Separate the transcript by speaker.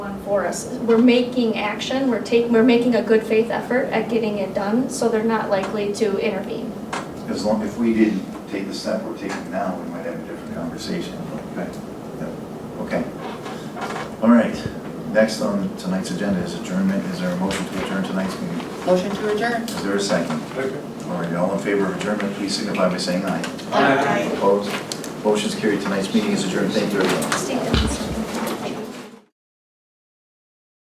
Speaker 1: for us. We're making action, we're taking, we're making a good faith effort at getting it done, so they're not likely to intervene.
Speaker 2: As long, if we didn't take the step we're taking now, we might have a different conversation. but- yeah, Okay. All right. Next on tonight's agenda is adjournment. Is there a motion to adjourn tonight's meeting?
Speaker 3: Motion to adjourn.
Speaker 2: Is there a second? All right, all in favor of adjournment, please signify by saying aye.
Speaker 3: Aye.
Speaker 2: Opposed? Motion's carried. Tonight's meeting is adjourned. Thank you, everyone.
Speaker 1: Stand.